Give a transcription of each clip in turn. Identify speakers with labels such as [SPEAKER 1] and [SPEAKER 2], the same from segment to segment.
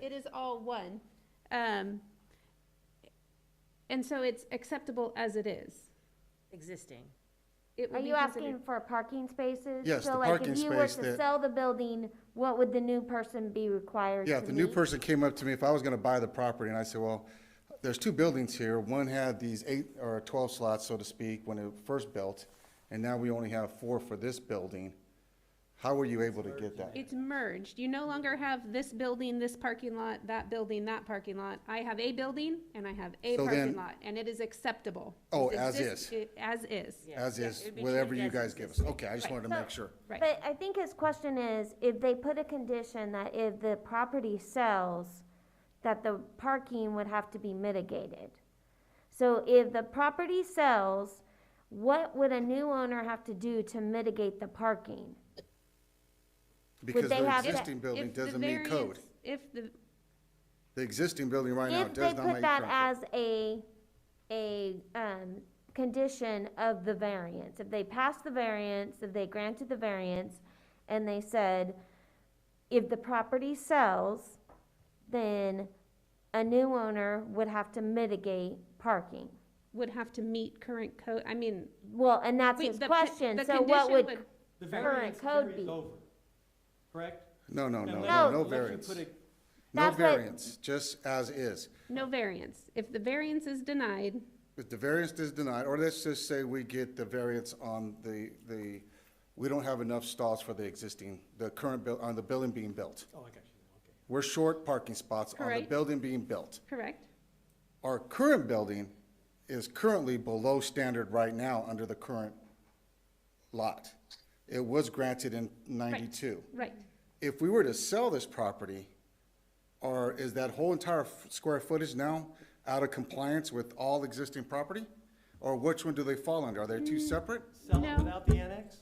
[SPEAKER 1] it is all one. Um, and so it's acceptable as it is.
[SPEAKER 2] existing.
[SPEAKER 1] It
[SPEAKER 3] Are
[SPEAKER 1] would be
[SPEAKER 3] you asking
[SPEAKER 1] considered,
[SPEAKER 3] for parking spaces?
[SPEAKER 4] Yes, the parking
[SPEAKER 3] So like if
[SPEAKER 4] space
[SPEAKER 3] you were to
[SPEAKER 4] that-
[SPEAKER 3] sell the building, what would the new person be required to
[SPEAKER 4] Yeah, if the new
[SPEAKER 3] meet?
[SPEAKER 4] person came up to me, if I was gonna buy the property, and I said, well, there's two buildings here, one had these eight or twelve slots, so to speak, when it first built, and now we only have four for this building, how were you able to get that?
[SPEAKER 1] it's merged. You no longer have this building, this parking lot, that building, that parking lot. I have a building and I have a
[SPEAKER 4] So
[SPEAKER 1] parking
[SPEAKER 4] then-
[SPEAKER 1] lot, and it is acceptable.
[SPEAKER 4] Oh,
[SPEAKER 1] It's
[SPEAKER 4] as
[SPEAKER 1] exist-
[SPEAKER 4] is.
[SPEAKER 1] it- As is.
[SPEAKER 2] Yeah.
[SPEAKER 4] As
[SPEAKER 2] Yeah,
[SPEAKER 4] is,
[SPEAKER 2] it'd be
[SPEAKER 4] whatever
[SPEAKER 2] treated
[SPEAKER 4] you
[SPEAKER 2] as
[SPEAKER 4] guys give us,
[SPEAKER 2] existing.
[SPEAKER 4] okay, I just wanted to make sure.
[SPEAKER 1] Right.
[SPEAKER 3] But I think his question is, if they put a condition that if the property sells, that the parking would have to be mitigated. So if the property sells, what would a new owner have to do to mitigate the parking?
[SPEAKER 4] Because
[SPEAKER 3] they
[SPEAKER 4] the
[SPEAKER 3] have to-
[SPEAKER 4] existing building
[SPEAKER 1] If the
[SPEAKER 4] doesn't meet code.
[SPEAKER 1] variance- If the,
[SPEAKER 4] The existing building right now
[SPEAKER 3] If they
[SPEAKER 4] does not
[SPEAKER 3] put
[SPEAKER 4] make
[SPEAKER 3] that
[SPEAKER 4] code.
[SPEAKER 3] as a, a, um, condition of the variance, if they passed the variance, if they granted the variance, and they said, if the property sells, then a new owner would have to mitigate parking.
[SPEAKER 1] would have to meet current code, I mean.
[SPEAKER 3] Well, and that's
[SPEAKER 1] wait,
[SPEAKER 3] his
[SPEAKER 1] the-
[SPEAKER 3] question,
[SPEAKER 1] the
[SPEAKER 3] so what
[SPEAKER 1] condition
[SPEAKER 3] would,
[SPEAKER 5] The
[SPEAKER 3] Current
[SPEAKER 5] variance
[SPEAKER 3] code
[SPEAKER 5] period's
[SPEAKER 3] be.
[SPEAKER 5] over, correct?
[SPEAKER 4] No, no, no,
[SPEAKER 5] Unless-
[SPEAKER 4] no, no
[SPEAKER 5] unless you
[SPEAKER 4] variance.
[SPEAKER 5] put a-
[SPEAKER 4] No
[SPEAKER 3] That's what-
[SPEAKER 4] variance, just as is.
[SPEAKER 1] No variance. If the variance is denied,
[SPEAKER 4] If the variance is denied, or let's just say we get the variance on the, the, we don't have enough stalls for the existing, the current buil, on the building being built.
[SPEAKER 5] Oh, I got you, okay.
[SPEAKER 4] We're short parking spots on the
[SPEAKER 1] Correct.
[SPEAKER 4] building being built.
[SPEAKER 1] correct?
[SPEAKER 4] Our current building is currently below standard right now under the current lot. It was granted in ninety-two.
[SPEAKER 1] Right.
[SPEAKER 4] If we were to sell this property, or is that whole entire f- square footage now out of compliance with all existing property? Or which one do they fall under? Are they two
[SPEAKER 1] Mm.
[SPEAKER 4] separate?
[SPEAKER 5] Sell
[SPEAKER 1] No.
[SPEAKER 5] it without the annex?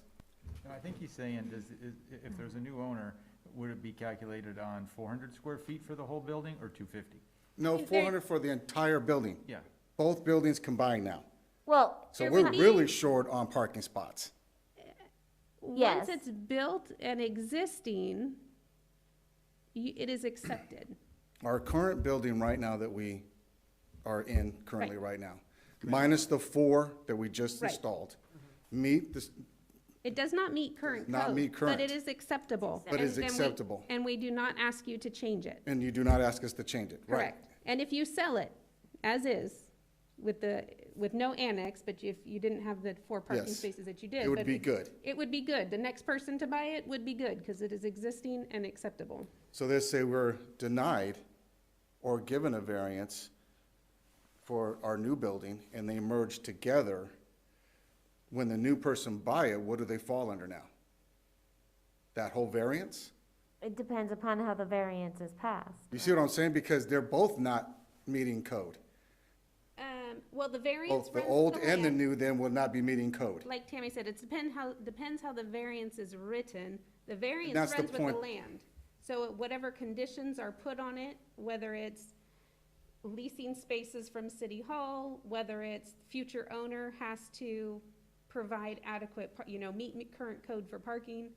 [SPEAKER 6] No, I think he's saying, does, is, i- if there's a new owner, would it be calculated on four hundred square feet for the whole building or two fifty?
[SPEAKER 4] No,
[SPEAKER 1] Is there-
[SPEAKER 4] four hundred for the entire building.
[SPEAKER 6] Yeah.
[SPEAKER 4] Both buildings combined now.
[SPEAKER 3] well,
[SPEAKER 4] So
[SPEAKER 1] There
[SPEAKER 4] we're
[SPEAKER 1] would be-
[SPEAKER 4] really short on parking spots.
[SPEAKER 3] Yes.
[SPEAKER 1] Once it's built and existing, you, it is accepted.
[SPEAKER 4] Our current building right now that we are in currently right now, minus the four that we just
[SPEAKER 1] Right.
[SPEAKER 4] installed, meet this,
[SPEAKER 1] It does not meet current code.
[SPEAKER 4] Not meet
[SPEAKER 1] But it
[SPEAKER 4] current.
[SPEAKER 1] is acceptable.
[SPEAKER 4] But it's
[SPEAKER 1] And then we-
[SPEAKER 4] acceptable.
[SPEAKER 1] And we do not ask you to change it.
[SPEAKER 4] and you do not ask us to change it, right?
[SPEAKER 1] Correct. And if you sell it as is, with the, with no annex, but if you didn't have the four parking
[SPEAKER 4] Yes.
[SPEAKER 1] spaces that you did.
[SPEAKER 4] It would
[SPEAKER 1] but
[SPEAKER 4] be good.
[SPEAKER 1] It would be good. The next person to buy it would be good because it is existing and acceptable.
[SPEAKER 4] So they say we're denied or given a variance for our new building, and they merge together. When the new person buy it, what do they fall under now? That whole variance?
[SPEAKER 3] it depends upon how the variance is passed.
[SPEAKER 4] You see what I'm saying? Because they're both not meeting code.
[SPEAKER 1] Um, well, the variance
[SPEAKER 4] Both the
[SPEAKER 1] runs
[SPEAKER 4] old
[SPEAKER 1] the
[SPEAKER 4] and the
[SPEAKER 1] land.
[SPEAKER 4] new then will not be meeting code.
[SPEAKER 1] Like Tammy said, it's depend how, depends how the variance is written. The variance
[SPEAKER 4] that's the
[SPEAKER 1] runs with the
[SPEAKER 4] point.
[SPEAKER 1] land. So whatever conditions are put on it, whether it's leasing spaces from City Hall, whether it's future owner has to provide adequate, par- you know, meet meet current code for parking.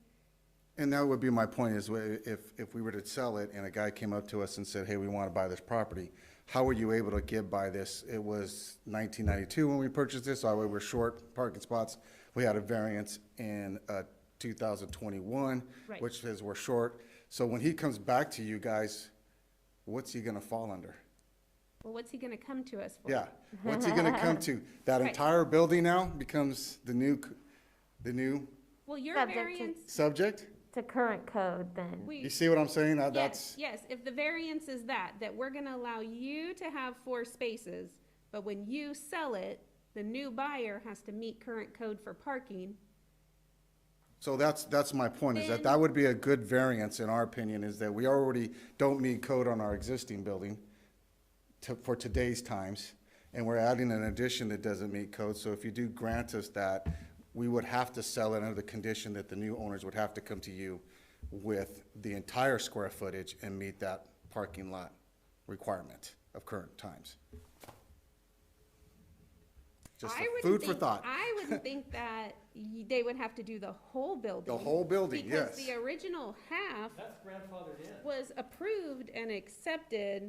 [SPEAKER 4] And that would be my point is wh- if, if we were to sell it and a guy came up to us and said, hey, we want to buy this property, how were you able to get by this? It was nineteen ninety-two when we purchased this, so we were short parking spots. We had a variance in, uh, two thousand twenty-one,
[SPEAKER 1] Right.
[SPEAKER 4] which says we're short. So when he comes back to you guys, what's he gonna fall under?
[SPEAKER 1] Well, what's he gonna come to us for?
[SPEAKER 4] Yeah, what's he gonna come to? That
[SPEAKER 1] Right.
[SPEAKER 4] entire building now becomes the new, c- the new
[SPEAKER 1] Well, your
[SPEAKER 3] Subject to-
[SPEAKER 1] variance,
[SPEAKER 4] subject?
[SPEAKER 3] To current code then.
[SPEAKER 1] we.
[SPEAKER 4] You see what I'm saying? That-
[SPEAKER 1] Yes,
[SPEAKER 4] That's.
[SPEAKER 1] yes, if the variance is that, that we're gonna allow you to have four spaces, but when you sell it, the new buyer has to meet current code for parking.
[SPEAKER 4] So that's, that's my point, is that that would be a good variance, in our opinion, is that we already don't meet code on our existing building to, for today's times, and we're adding an addition that doesn't meet code, so if you do grant us that, we would have to sell it under the condition that the new owners would have to come to you with the entire square footage and meet that parking lot requirement of current times. Just
[SPEAKER 1] I would
[SPEAKER 4] food for
[SPEAKER 1] think-
[SPEAKER 4] thought.
[SPEAKER 1] I would think that y- they would have to do the whole building.
[SPEAKER 4] whole building, yes.
[SPEAKER 1] Because the original half
[SPEAKER 5] That's grandfathered in.
[SPEAKER 1] was approved and accepted